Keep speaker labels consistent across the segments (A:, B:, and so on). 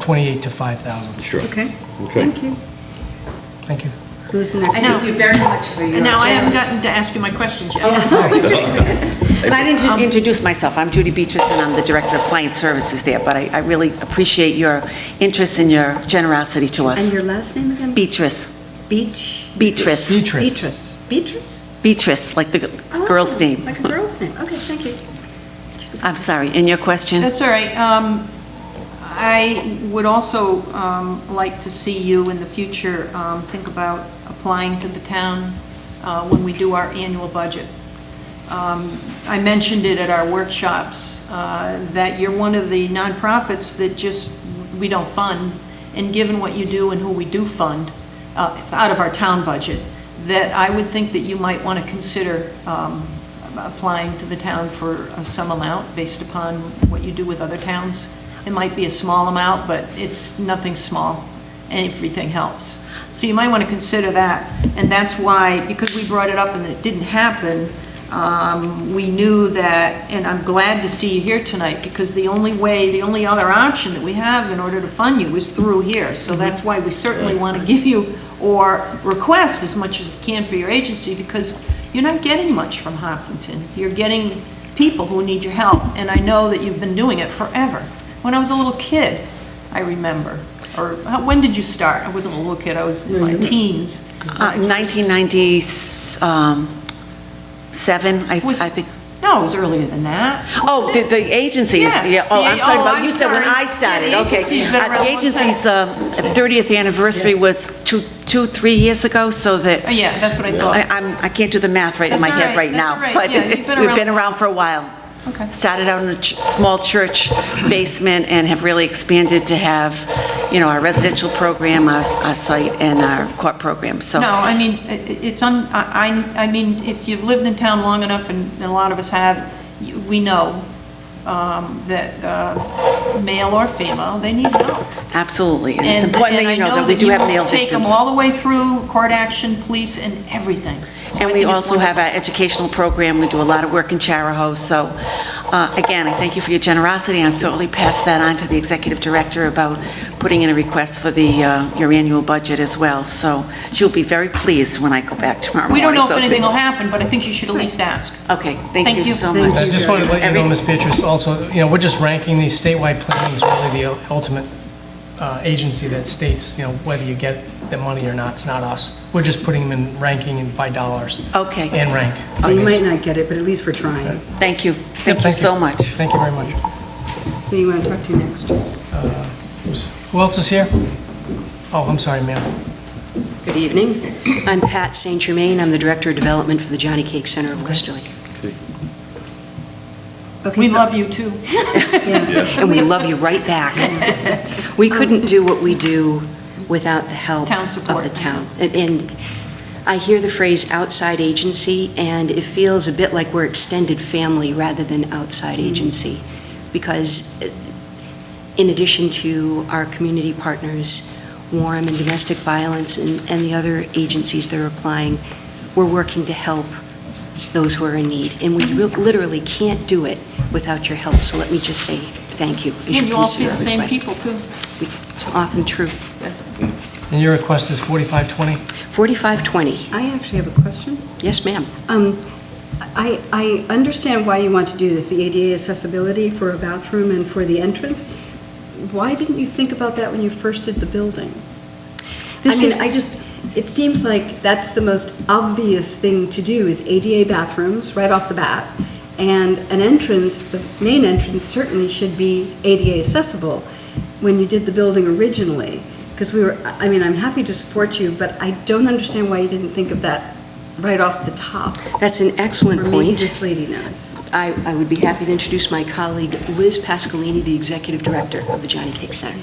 A: 28 to 5,000.
B: Sure.
C: Okay,
B: Okay.
C: thank you.
A: Thank you.
C: Who's the next?
D: I know.
E: Thank you very much for your.
D: And now I haven't
E: generous-
D: gotten to ask you my questions yet.
E: And I
D: Um,
E: didn't introduce myself. I'm Judy Beatrice, and I'm the Director of Client Services there, but I I really appreciate your interest and your generosity to
C: And
E: us.
C: your last name again?
E: Beatrice,
C: Beach?
E: Beatrice,
A: Beatrice.
C: Beatrice. Beatrice?
E: Beatrice, like the g-
C: Oh,
E: girl's name.
C: Like a girl's name, okay, thank you.
F: Oh,
E: I'm sorry, in your question?
D: That's all right. Um, I would also um, like to see you in the future um, think about applying to the town uh, when we do our annual budget. Um, I mentioned it at our workshops, uh, that you're one of the nonprofits that just, we don't fund, and given what you do and who we do fund, uh, out of our town budget, that I would think that you might want to consider um, applying to the town for uh, some amount based upon what you do with other towns. It might be a small amount, but it's nothing small, and everything helps. So you might want to consider that, and that's why, because we brought it up and it didn't happen, um, we knew that, and I'm glad to see you here tonight, because the only way, the only other option that we have in order to fund you is through here.
E: Mm-hmm.
D: So that's why we certainly want to give you, or request as much as we can for your agency, because you're not getting much from Hopkinton. You're getting people who need your help, and I know that you've been doing it forever. When I was a little kid, I remember, or how- when did you start? I wasn't a little kid, I was in my teens.
E: Mm-hmm. Uh, 1997, I
D: Was-
E: I think.
D: No, it was earlier than that.
E: Oh, the, the agency is,
D: Yeah.
E: yeah, oh,
D: Yeah,
E: I'm talking
D: oh,
E: about,
D: I'm
E: you said when
D: sorry.
E: I started,
D: Yeah, the
E: okay.
D: agency's been
E: Uh,
D: around a
E: The
D: long
E: agency's um, 30th anniversary was two, two, three years ago, so that,
D: Oh, yeah, that's what I thought.
E: I, I'm, I can't do the math right in
D: That's
E: my
D: all
E: head
D: right,
E: right
D: that's
E: now.
D: all right.
E: But
D: Yeah, you've
E: it's-
D: been
E: we've
D: around-
E: been around for a while.
D: Okay.
E: Started out in a ch- small church basement and have really expanded to have, you know, our residential program, our, s- our site, and our court program, so.
D: No, I mean, i- i- it's on, I, I- I mean, if you've lived in town long enough, and and a lot of us have, you- we know um, that uh, male or female, they need help.
E: Absolutely, and it's
D: And-
E: important
D: and
E: that you
D: I
E: know that we do
D: you
E: have male
D: Take them
E: victims.
D: all the way through court action, police, and everything. So I
E: And we
D: think it's
E: also have
D: wonderful.
E: our educational program, we do a lot of work in Charahoe, so, uh, again, I thank you for your generosity, and I'll certainly pass that on to the executive director about putting in a request for the, uh, your annual budget as well, so she'll be very pleased when I go back tomorrow
D: We
E: morning.
D: don't know if
E: so-
D: anything will happen, but I think you should at least ask.
E: Okay, thank
D: Thank
E: you
D: you.
E: so
C: Thank
A: I
E: much.
A: just wanted to let you know,
E: Every-
A: Ms. Beatrice, also, you know, we're just ranking these statewide planning is really the ultimate uh, agency that states, you know, whether you get the money or not, it's not us. We're just putting them in ranking and by dollars
E: Okay,
A: and rank.
C: So you might not get it, but at least we're trying.
E: thank you, thank you
A: thank
E: so
A: you.
E: much.
A: Thank you very much.
C: Who you want to talk to next?
A: Who else is here? Oh, I'm sorry, ma'am.
F: Good evening. I'm Pat St. Germain. I'm the Director of Development for the Johnny Cake Center of Westerly.
C: Okay,
D: We
C: so-
D: love you, too.
F: And we love you right back. We couldn't do what we do without the help
D: Town
F: of
D: support.
F: the town. And- And I hear the phrase "outside agency," and it feels a bit like we're extended family rather than outside
D: Mm-hmm.
F: agency, because uh, in addition to our community partners, Warm and Domestic Violence and and the other agencies that are applying, we're working to help those who are in need, and we real- literally can't do it without your help, so let me just say thank you. as
D: And you all see
F: consider
D: the
F: our
D: same
F: request.
D: people, too.
F: We- It's often true.
A: And your request is 4520?
F: 4520,
C: I actually have a question.
F: yes, ma'am.
C: Um, I, I understand why you want to do this, the ADA accessibility for a bathroom and for the entrance. Why didn't you think about that when you first did the building? I
F: This
C: mean,
F: is-
C: I just, it seems like that's the most obvious thing to do is ADA bathrooms right off the bat. And an entrance, the main entrance certainly should be ADA accessible when you did the building originally. Because we were, I mean, I'm happy to support you, but I don't understand why you didn't think of that right off the top.
F: That's an excellent
C: Or maybe
F: point.
C: this lady knows.
F: I, I would be happy to introduce my colleague Liz Pascalini, the Executive Director of the Johnny Cake Center.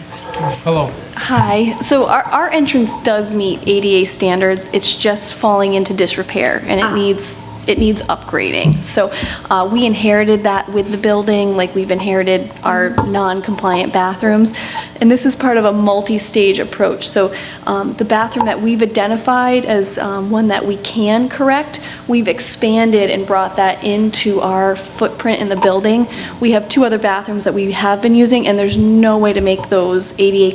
A: Hello.
G: Hi. So our, our entrance does meet ADA standards. It's just falling into disrepair and it needs, it needs upgrading. So uh, we inherited that with the building, like we've inherited our non-compliant bathrooms. And this is part of a multi-stage approach. So um, the bathroom that we've identified as um, one that we can correct, we've expanded and brought that into our footprint in the building. We have two other bathrooms that we have been using, and there's no way to make those ADA